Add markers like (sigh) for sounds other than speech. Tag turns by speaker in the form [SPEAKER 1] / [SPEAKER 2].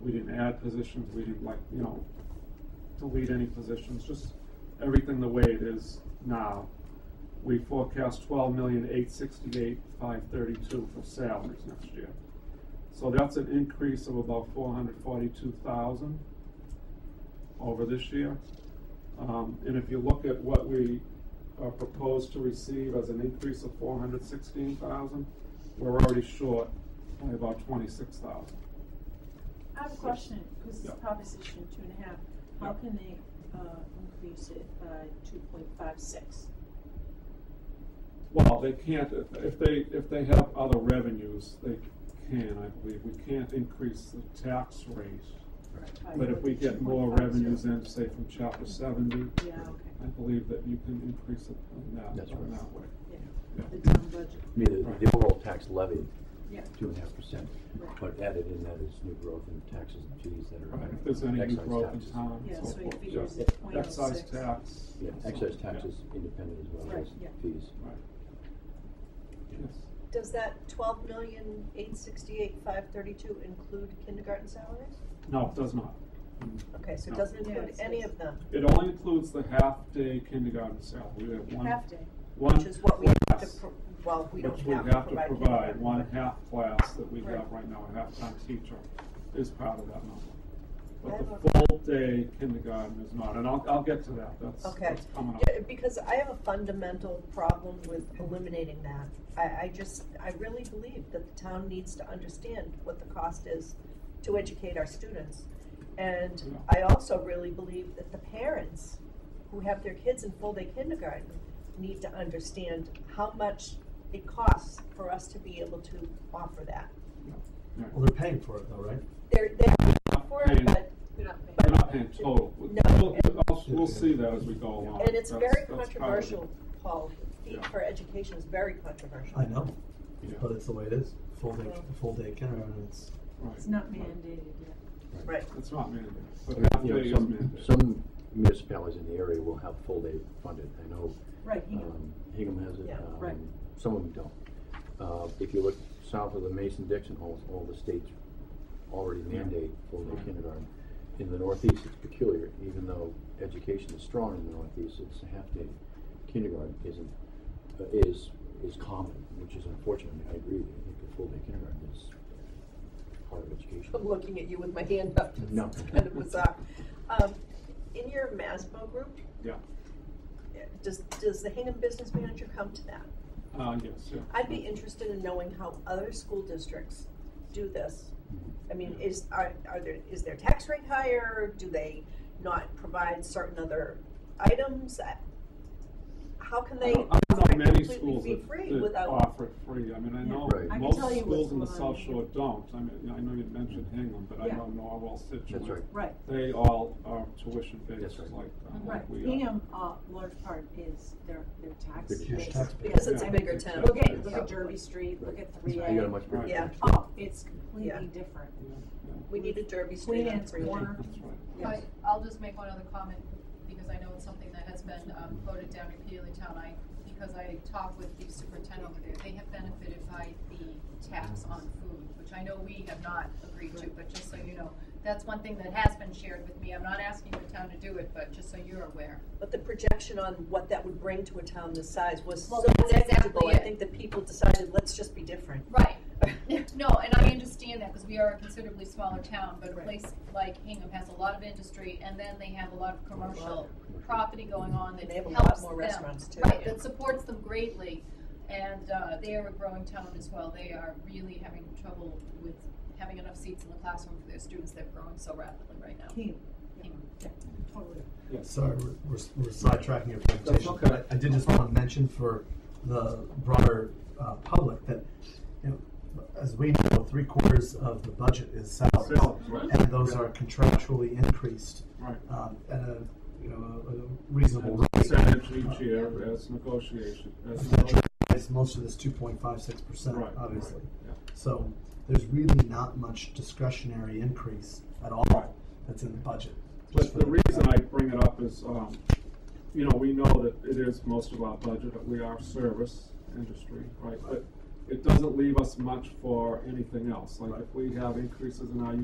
[SPEAKER 1] we didn't add positions, we didn't like, you know, delete any positions, just everything the way it is now. We forecast twelve million eight sixty-eight five thirty-two for salaries next year. So that's an increase of about four hundred forty-two thousand over this year. Um, and if you look at what we are proposed to receive as an increase of four hundred sixteen thousand, we're already short by about twenty-six thousand.
[SPEAKER 2] I have a question, because it's
[SPEAKER 1] Yeah.
[SPEAKER 2] Proposition two and a half. How
[SPEAKER 1] Yeah.
[SPEAKER 2] can they, uh, increase it by two point five six?
[SPEAKER 1] Well, they can't, if- if they, if they have other revenues, they can, I believe. We can't increase the tax rate. But if we get more revenues in, say from chapter seventy,
[SPEAKER 2] Yeah,
[SPEAKER 1] I
[SPEAKER 2] okay,
[SPEAKER 1] believe that you can increase it on that,
[SPEAKER 3] That's
[SPEAKER 1] on
[SPEAKER 3] right.
[SPEAKER 1] that way.
[SPEAKER 2] yeah,
[SPEAKER 1] Yeah.
[SPEAKER 2] the town budget,
[SPEAKER 3] I mean, the- the overall tax levy,
[SPEAKER 2] yeah,
[SPEAKER 3] two and a half percent,
[SPEAKER 2] right,
[SPEAKER 3] but added in that is new growth in taxes and fees that are.
[SPEAKER 1] If there's any new
[SPEAKER 3] excise
[SPEAKER 1] growth in
[SPEAKER 3] taxes.
[SPEAKER 1] town
[SPEAKER 2] yeah,
[SPEAKER 1] and so
[SPEAKER 2] so he
[SPEAKER 1] forth.
[SPEAKER 2] figures
[SPEAKER 3] Yeah.
[SPEAKER 2] it's point oh six.
[SPEAKER 1] Excise tax.
[SPEAKER 3] Yeah,
[SPEAKER 1] so-
[SPEAKER 3] excise
[SPEAKER 1] yeah,
[SPEAKER 3] taxes independent as well
[SPEAKER 2] Right,
[SPEAKER 3] as
[SPEAKER 2] yeah.
[SPEAKER 3] fees.
[SPEAKER 1] Right. Yes,
[SPEAKER 4] Does that twelve million, eight sixty-eight, five thirty-two include kindergarten salaries?
[SPEAKER 1] no, it does not.
[SPEAKER 4] Okay, so
[SPEAKER 1] No.
[SPEAKER 4] it doesn't
[SPEAKER 2] Yeah,
[SPEAKER 4] include
[SPEAKER 2] it's-
[SPEAKER 4] any of them,
[SPEAKER 1] It only includes the half-day kindergarten salary. We have one,
[SPEAKER 2] Half day,
[SPEAKER 1] one.
[SPEAKER 4] which is what we have to,
[SPEAKER 1] class.
[SPEAKER 4] pro- well, we don't
[SPEAKER 1] Which we
[SPEAKER 4] have to
[SPEAKER 1] have to
[SPEAKER 4] provide.
[SPEAKER 1] provide,
[SPEAKER 4] kindergarten.
[SPEAKER 1] one half class that we have
[SPEAKER 2] Right.
[SPEAKER 1] right now, a half-time teacher is part of that number.
[SPEAKER 4] I
[SPEAKER 1] But
[SPEAKER 4] have
[SPEAKER 1] the full day kindergarten is not, and I'll, I'll get to that, that's,
[SPEAKER 4] Okay.
[SPEAKER 1] that's coming up.
[SPEAKER 4] Yeah, because I have a fundamental problem with eliminating that. I, I just, I really believe that the town needs to understand what the cost is to educate our students. And
[SPEAKER 1] Yeah.
[SPEAKER 4] I also really believe that the parents who have their kids in full-day kindergarten need to understand how much it costs for us to be able to offer that.
[SPEAKER 1] Yeah.
[SPEAKER 5] Well, they're paying for it though, right?
[SPEAKER 4] They're, they're
[SPEAKER 1] Not
[SPEAKER 4] for it,
[SPEAKER 1] paying-
[SPEAKER 4] but,
[SPEAKER 2] we're not paying.
[SPEAKER 1] We're not paying total,
[SPEAKER 4] No,
[SPEAKER 1] we'll,
[SPEAKER 4] and-
[SPEAKER 1] I'll- we'll see that as we go along.
[SPEAKER 4] and it's
[SPEAKER 1] That's- that's
[SPEAKER 4] very
[SPEAKER 1] part of it.
[SPEAKER 4] controversial, Paul. Feed
[SPEAKER 1] Yeah.
[SPEAKER 4] for education is very controversial.
[SPEAKER 5] I know,
[SPEAKER 1] Yeah,
[SPEAKER 5] but it's the way it is. Full day,
[SPEAKER 4] Yeah.
[SPEAKER 5] full day kindergarten, it's,
[SPEAKER 1] right.
[SPEAKER 2] it's not mandated yet.
[SPEAKER 4] Right.
[SPEAKER 1] It's not mandated, but
[SPEAKER 3] You know,
[SPEAKER 1] half day is
[SPEAKER 3] some-
[SPEAKER 1] mandated.
[SPEAKER 3] Some municipalities in the area will have full day funded. I know
[SPEAKER 2] Right, you know,
[SPEAKER 3] um, Hingham has it,
[SPEAKER 4] Yeah.
[SPEAKER 2] Right.
[SPEAKER 3] um, some of them don't. Uh, If you look south of the Mason-Dixon, almost all the states already mandate full day
[SPEAKER 1] Right.
[SPEAKER 3] kindergarten. In the Northeast, it's peculiar, even though education is strong in the Northeast, it's a half-day kindergarten isn't, uh, is, is common, which is unfortunate. I mean, I agree, with you. I think a full day kindergarten is part of education.
[SPEAKER 4] I'm looking at you with my hand up.
[SPEAKER 3] No.
[SPEAKER 4] It's (laughs) kind of bizarre. Um, in your MASBO group,
[SPEAKER 1] Yeah,
[SPEAKER 4] eh, does, does the Hingham Business Manager come to that?
[SPEAKER 1] uh, yes, yeah.
[SPEAKER 4] I'd be interested in knowing how other school districts do this.
[SPEAKER 3] Mm-hmm.
[SPEAKER 4] I mean, is, are, are there, is their tax rate higher? Do they not provide certain other items? I- How can
[SPEAKER 1] I
[SPEAKER 4] they
[SPEAKER 1] don't I don't know many schools
[SPEAKER 4] completely be
[SPEAKER 1] that,
[SPEAKER 4] free
[SPEAKER 1] that
[SPEAKER 4] without?
[SPEAKER 1] offer it free, I mean, I
[SPEAKER 2] Yeah.
[SPEAKER 1] know
[SPEAKER 3] Right. I
[SPEAKER 2] can
[SPEAKER 1] most
[SPEAKER 2] tell you what's
[SPEAKER 1] schools in the
[SPEAKER 2] going
[SPEAKER 1] South
[SPEAKER 2] on.
[SPEAKER 1] Shore don't, I mean, I know you mentioned Hingham, but I
[SPEAKER 2] Yeah.
[SPEAKER 1] know Norwell, Situate.
[SPEAKER 3] That's right.
[SPEAKER 2] right, Mm-hmm.
[SPEAKER 1] They all are tuition based,
[SPEAKER 3] That's
[SPEAKER 1] like,
[SPEAKER 3] right.
[SPEAKER 1] uh,
[SPEAKER 2] right,
[SPEAKER 1] like we are.
[SPEAKER 2] Hingham, uh, large part is their, their tax
[SPEAKER 3] Big
[SPEAKER 2] base.
[SPEAKER 3] huge
[SPEAKER 5] tax base.
[SPEAKER 4] Because it's a
[SPEAKER 1] Yeah.
[SPEAKER 4] bigger town.
[SPEAKER 2] Look at,
[SPEAKER 3] Yeah.
[SPEAKER 2] look at Derby Street, look at three
[SPEAKER 3] You
[SPEAKER 2] A.
[SPEAKER 3] got a much bigger.
[SPEAKER 1] Right.
[SPEAKER 4] uh, Yeah.
[SPEAKER 2] Oh, it's
[SPEAKER 4] Yeah.
[SPEAKER 2] completely different.
[SPEAKER 1] Yeah,
[SPEAKER 4] We need a Derby Street
[SPEAKER 2] Queen
[SPEAKER 4] on
[SPEAKER 2] Anne's
[SPEAKER 4] three.
[SPEAKER 2] Corner.
[SPEAKER 1] That's right.
[SPEAKER 2] Yes.
[SPEAKER 6] I, I'll just make one other comment, because I know it's something that has been um, voted down repeatedly town, I, because I talked with the superintendent over there, they have benefited by the tax on food, which I know we have not agreed to, but just so you know, that's one thing that has been shared with me, I'm not asking the town to do it, but just so you're aware.
[SPEAKER 4] But the projection on what that would bring to a town this size was so
[SPEAKER 6] Well, that's exactly
[SPEAKER 4] negligible, I
[SPEAKER 6] it.
[SPEAKER 4] think that people decided, let's just be different.
[SPEAKER 6] Right, (laughs) no, and I understand that, because we are a considerably smaller town, but a
[SPEAKER 2] Right.
[SPEAKER 6] place like Hingham has a lot of industry, and then they have a lot of commercial
[SPEAKER 3] Commercial.
[SPEAKER 6] property going on that
[SPEAKER 4] They have a
[SPEAKER 6] helps them.
[SPEAKER 4] lot more restaurants too.
[SPEAKER 6] Right, that supports them greatly, and uh, they are a growing town as well. They are really having trouble with having enough seats in the classroom for their students. They're growing so rapidly right now.
[SPEAKER 2] Hingham,
[SPEAKER 6] Hingham.
[SPEAKER 2] totally.
[SPEAKER 1] Yes,
[SPEAKER 5] sorry, we're, we're we're sidetracking your presentation.
[SPEAKER 1] okay.
[SPEAKER 5] But I did just want to mention for the broader, uh, public that, you know, as we know, three quarters of the budget is salaries.
[SPEAKER 1] Salaries, right.
[SPEAKER 5] And those are contractually increased,
[SPEAKER 1] right.
[SPEAKER 5] um, at a, you know, a- a reasonable rate.
[SPEAKER 1] Percentage each year as negotiation, as negotiation,
[SPEAKER 5] It's most of this two point five six percent,
[SPEAKER 1] right, right,
[SPEAKER 5] obviously.
[SPEAKER 1] yeah.
[SPEAKER 5] So there's really not much discretionary increase at all that's in the budget.
[SPEAKER 1] But the reason I bring it up is, um, you know, we know that it is most of our budget, that we are service industry, right? But it doesn't leave us much for anything else. Like if we have increases in our